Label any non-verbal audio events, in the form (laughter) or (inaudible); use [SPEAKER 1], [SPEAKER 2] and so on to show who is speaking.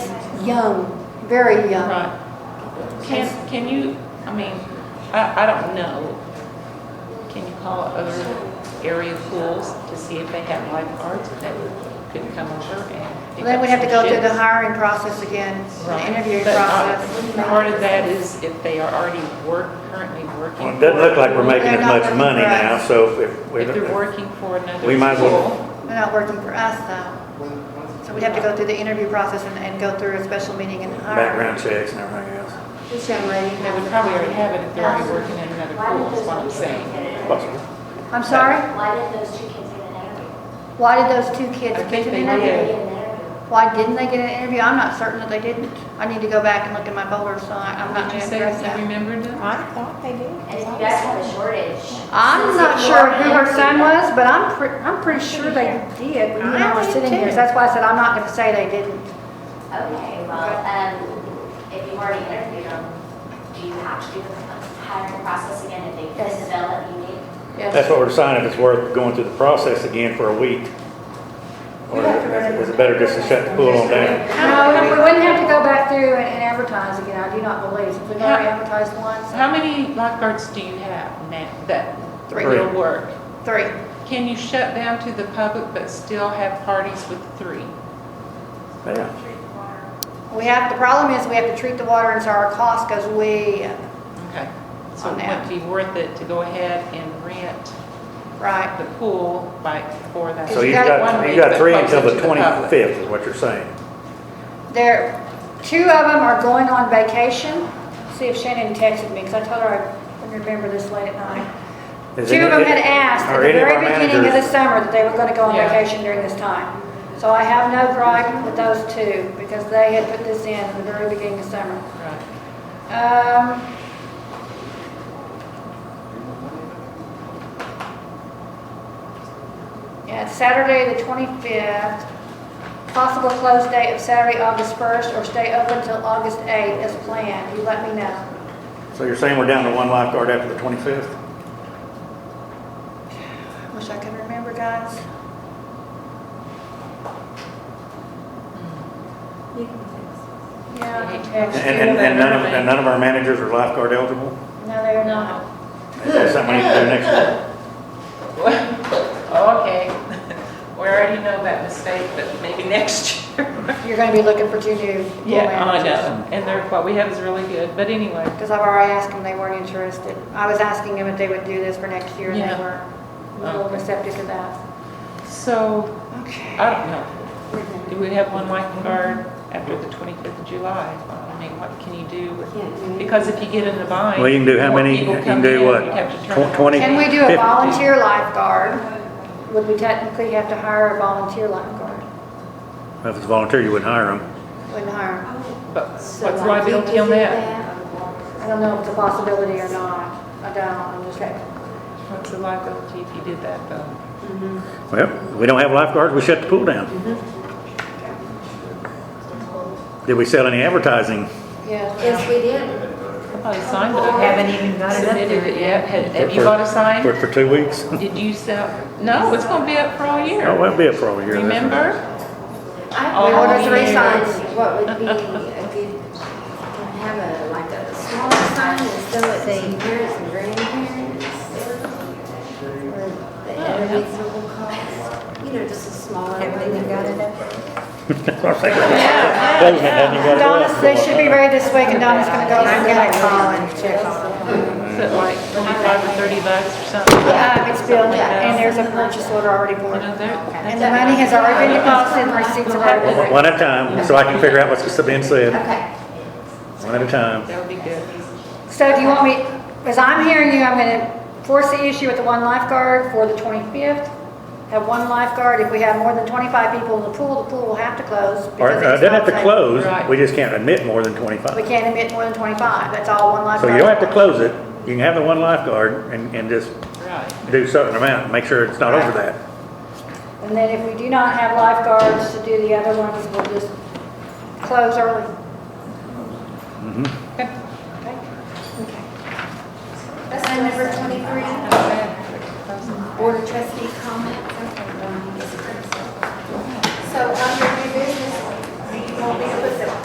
[SPEAKER 1] young, very young.
[SPEAKER 2] Right. Can, can you, I mean, I, I don't know. Can you call other area pools to see if they have lifeguards that could come over and pick
[SPEAKER 1] They
[SPEAKER 2] up
[SPEAKER 1] would have to
[SPEAKER 2] some
[SPEAKER 1] go through the
[SPEAKER 2] shifts?
[SPEAKER 1] hiring process again, the
[SPEAKER 2] Right.
[SPEAKER 1] interviewing
[SPEAKER 2] But, uh,
[SPEAKER 1] process.
[SPEAKER 2] Part of that is if they are already work, currently working.
[SPEAKER 3] Well, It doesn't look like we're making
[SPEAKER 1] They're
[SPEAKER 3] as
[SPEAKER 1] not
[SPEAKER 3] much
[SPEAKER 1] working
[SPEAKER 3] money
[SPEAKER 1] for us.
[SPEAKER 3] now, so if we
[SPEAKER 2] If they're
[SPEAKER 3] don't,
[SPEAKER 2] working for another
[SPEAKER 3] We might as well-
[SPEAKER 2] school,
[SPEAKER 1] They're not working for us though. So we'd have to go through the interview process and, and go through a special meeting and hire.
[SPEAKER 3] background checks and everything else.
[SPEAKER 4] This young lady
[SPEAKER 2] they
[SPEAKER 4] has
[SPEAKER 2] would
[SPEAKER 4] a
[SPEAKER 2] probably already
[SPEAKER 4] comment.
[SPEAKER 2] have it if they're already working in another pool, is what I'm saying.
[SPEAKER 3] Possible.
[SPEAKER 1] I'm sorry?
[SPEAKER 5] Why did those two kids get an interview?
[SPEAKER 1] Why did those two kids
[SPEAKER 2] I think
[SPEAKER 1] get an
[SPEAKER 2] they
[SPEAKER 1] interview?
[SPEAKER 2] did.
[SPEAKER 5] They get an interview.
[SPEAKER 1] Why didn't they get an interview? I'm not certain that they didn't. I need to go back and look at my folder, so I- I'm not
[SPEAKER 2] Did you
[SPEAKER 1] gonna
[SPEAKER 2] say Mm-hmm.
[SPEAKER 1] address
[SPEAKER 2] you
[SPEAKER 1] that.
[SPEAKER 2] remembered them?
[SPEAKER 4] I thought they did.
[SPEAKER 5] And if you guys have a shortage.
[SPEAKER 1] I'm not sure who her son was, but I'm pre, I'm pretty sure they did when you and I were
[SPEAKER 4] I do
[SPEAKER 1] sitting here.
[SPEAKER 4] too.
[SPEAKER 1] So that's why I said I'm not gonna say they didn't.
[SPEAKER 5] Okay, well, um, if you've already interviewed them, do you have to do the hiring process again if they fit the bill that you need?
[SPEAKER 3] That's what we're deciding, if it's worth going through the process again for a week. Or is it better just to shut the pool on down?
[SPEAKER 1] No, we wouldn't have to go back through and and advertise again, I do not believe, since we've already advertised once.
[SPEAKER 2] How many lifeguards do you have now that
[SPEAKER 1] Three.
[SPEAKER 2] will work?
[SPEAKER 1] Three.
[SPEAKER 2] Can you shut down to the public but still have parties with three?
[SPEAKER 3] Yeah,
[SPEAKER 1] We have, the problem is we have to treat the water and so our cost goes way, up.
[SPEAKER 2] Okay. So
[SPEAKER 1] On
[SPEAKER 2] it
[SPEAKER 1] that.
[SPEAKER 2] would be worth it to go ahead and rent
[SPEAKER 1] right?
[SPEAKER 2] the pool by, for that.
[SPEAKER 3] So you've got, you've got three until the twenty-fifth is what you're saying.
[SPEAKER 1] There, two of them are going on vacation. See if Shannon texted me, because I told her I couldn't remember this late at night.
[SPEAKER 3] Is
[SPEAKER 1] Two
[SPEAKER 3] any-
[SPEAKER 1] of them had asked at
[SPEAKER 3] are
[SPEAKER 1] the
[SPEAKER 3] any of
[SPEAKER 1] very
[SPEAKER 3] our
[SPEAKER 1] beginning of the
[SPEAKER 3] managers-
[SPEAKER 1] summer that they were gonna go on
[SPEAKER 2] Yeah.
[SPEAKER 1] vacation during this time. So I have no gripe with those two, because they had put this in at the very beginning of summer.
[SPEAKER 2] Right.
[SPEAKER 1] Um, Yeah, it's Saturday, the 25th. Possible close date of Saturday, August 1st, or stay open till August 8th as planned. You let me know.
[SPEAKER 3] So you're saying we're down to one lifeguard after the twenty-fifth?
[SPEAKER 1] I Wish I could remember, guys.
[SPEAKER 4] You can text.
[SPEAKER 1] Yeah, I can
[SPEAKER 3] And,
[SPEAKER 1] text you.
[SPEAKER 3] and, and none of, and none of our managers are lifeguard eligible?
[SPEAKER 1] No, they're not.
[SPEAKER 3] That's something we need to do next week.
[SPEAKER 2] (laughs) Okay. We already know that mistake, but maybe (laughs) next year.
[SPEAKER 1] You're going to be looking for two new.
[SPEAKER 2] Yeah, I know. And they're, what we have is really good, but anyway.
[SPEAKER 1] Because I've already asked them, they weren't interested. I was asking them if they would do this for next year, and
[SPEAKER 2] Yeah.
[SPEAKER 1] they were a little
[SPEAKER 2] Okay.
[SPEAKER 1] receptive to that.
[SPEAKER 2] So,
[SPEAKER 1] Okay.
[SPEAKER 2] I don't know. Do we have one lifeguard after the twenty-fifth of July? I mean, what can you do with
[SPEAKER 4] Can't do anything.
[SPEAKER 2] Because if you get in the bind.
[SPEAKER 3] Well, you can do how
[SPEAKER 2] more
[SPEAKER 3] many-
[SPEAKER 2] people
[SPEAKER 3] you can
[SPEAKER 2] come
[SPEAKER 3] do
[SPEAKER 2] in,
[SPEAKER 3] what?
[SPEAKER 2] you have to turn
[SPEAKER 3] Tw-
[SPEAKER 2] around.
[SPEAKER 3] 20?
[SPEAKER 1] Can we do a
[SPEAKER 3] Fifty.
[SPEAKER 1] volunteer lifeguard? Would we technically have to hire a volunteer lifeguard?
[SPEAKER 3] If it's volunteer, you wouldn't hire them.
[SPEAKER 1] Wouldn't hire. 'em.
[SPEAKER 2] But what's
[SPEAKER 4] So
[SPEAKER 2] liability on
[SPEAKER 4] did
[SPEAKER 2] that?
[SPEAKER 1] I don't know if it's a possibility or not. I don't, I'm just like,
[SPEAKER 2] What's the liability if you did that though?
[SPEAKER 3] Well, we don't have lifeguards, we shut the pool down. Did we sell any advertising?
[SPEAKER 1] yeah.
[SPEAKER 4] Yes, we did.
[SPEAKER 2] Probably signed it.
[SPEAKER 4] Haven't even got it up
[SPEAKER 2] Submitted
[SPEAKER 4] there
[SPEAKER 2] it yet. Have have you bought a
[SPEAKER 3] For,
[SPEAKER 2] sign?
[SPEAKER 3] for two weeks?
[SPEAKER 2] Did you sell? No, it's gonna be up for all
[SPEAKER 3] Oh,
[SPEAKER 2] year.
[SPEAKER 3] that'd be a pro year. that's right. (laughs)
[SPEAKER 2] Remember?
[SPEAKER 4] I
[SPEAKER 2] We ordered
[SPEAKER 4] wondered
[SPEAKER 1] three signs.
[SPEAKER 4] What would be, if you can have a, like a smaller sign that's still at the parents and grandparents? Or the at a reasonable cost, you know, just a smaller. Everything you got it
[SPEAKER 3] Closing it, hadn't even got it
[SPEAKER 1] Donna's,
[SPEAKER 3] up.
[SPEAKER 1] they should be ready this week, and Donna's gonna go and get a call and check on them.
[SPEAKER 2] Is it like twenty-five or thirty bucks or something?
[SPEAKER 1] Yeah, it's billed, and there's a purchase order already
[SPEAKER 2] You
[SPEAKER 1] for it.
[SPEAKER 2] know, they're-
[SPEAKER 1] And the money has already been deposited, and receipts are already
[SPEAKER 3] One- One at a time, so I can figure out what's being said,
[SPEAKER 4] Okay.
[SPEAKER 3] one at a time.
[SPEAKER 2] that would be good.
[SPEAKER 1] So do you want me, as I'm hearing you, I'm gonna force the issue with the one lifeguard for the 25th. Have one lifeguard, if we have more than 25 people in the pool, the pool will have to close.
[SPEAKER 3] Or, uh,
[SPEAKER 1] because it's
[SPEAKER 3] doesn't
[SPEAKER 1] not
[SPEAKER 3] have to
[SPEAKER 1] safe.
[SPEAKER 3] close,
[SPEAKER 2] Right.
[SPEAKER 3] we just can't admit more than
[SPEAKER 1] We
[SPEAKER 3] twenty-five.
[SPEAKER 1] can't admit more than 25, that's all one
[SPEAKER 3] So
[SPEAKER 1] lifeguard.
[SPEAKER 3] you don't have to close it, you can have the one lifeguard and, and just
[SPEAKER 2] Right.
[SPEAKER 3] do certain amount, and make sure it's not over that.
[SPEAKER 1] And then if we do not have lifeguards to do the other ones, we'll just close early.
[SPEAKER 2] Okay.
[SPEAKER 1] Okay? Okay.
[SPEAKER 4] That's number twenty-three, board of trustee comment.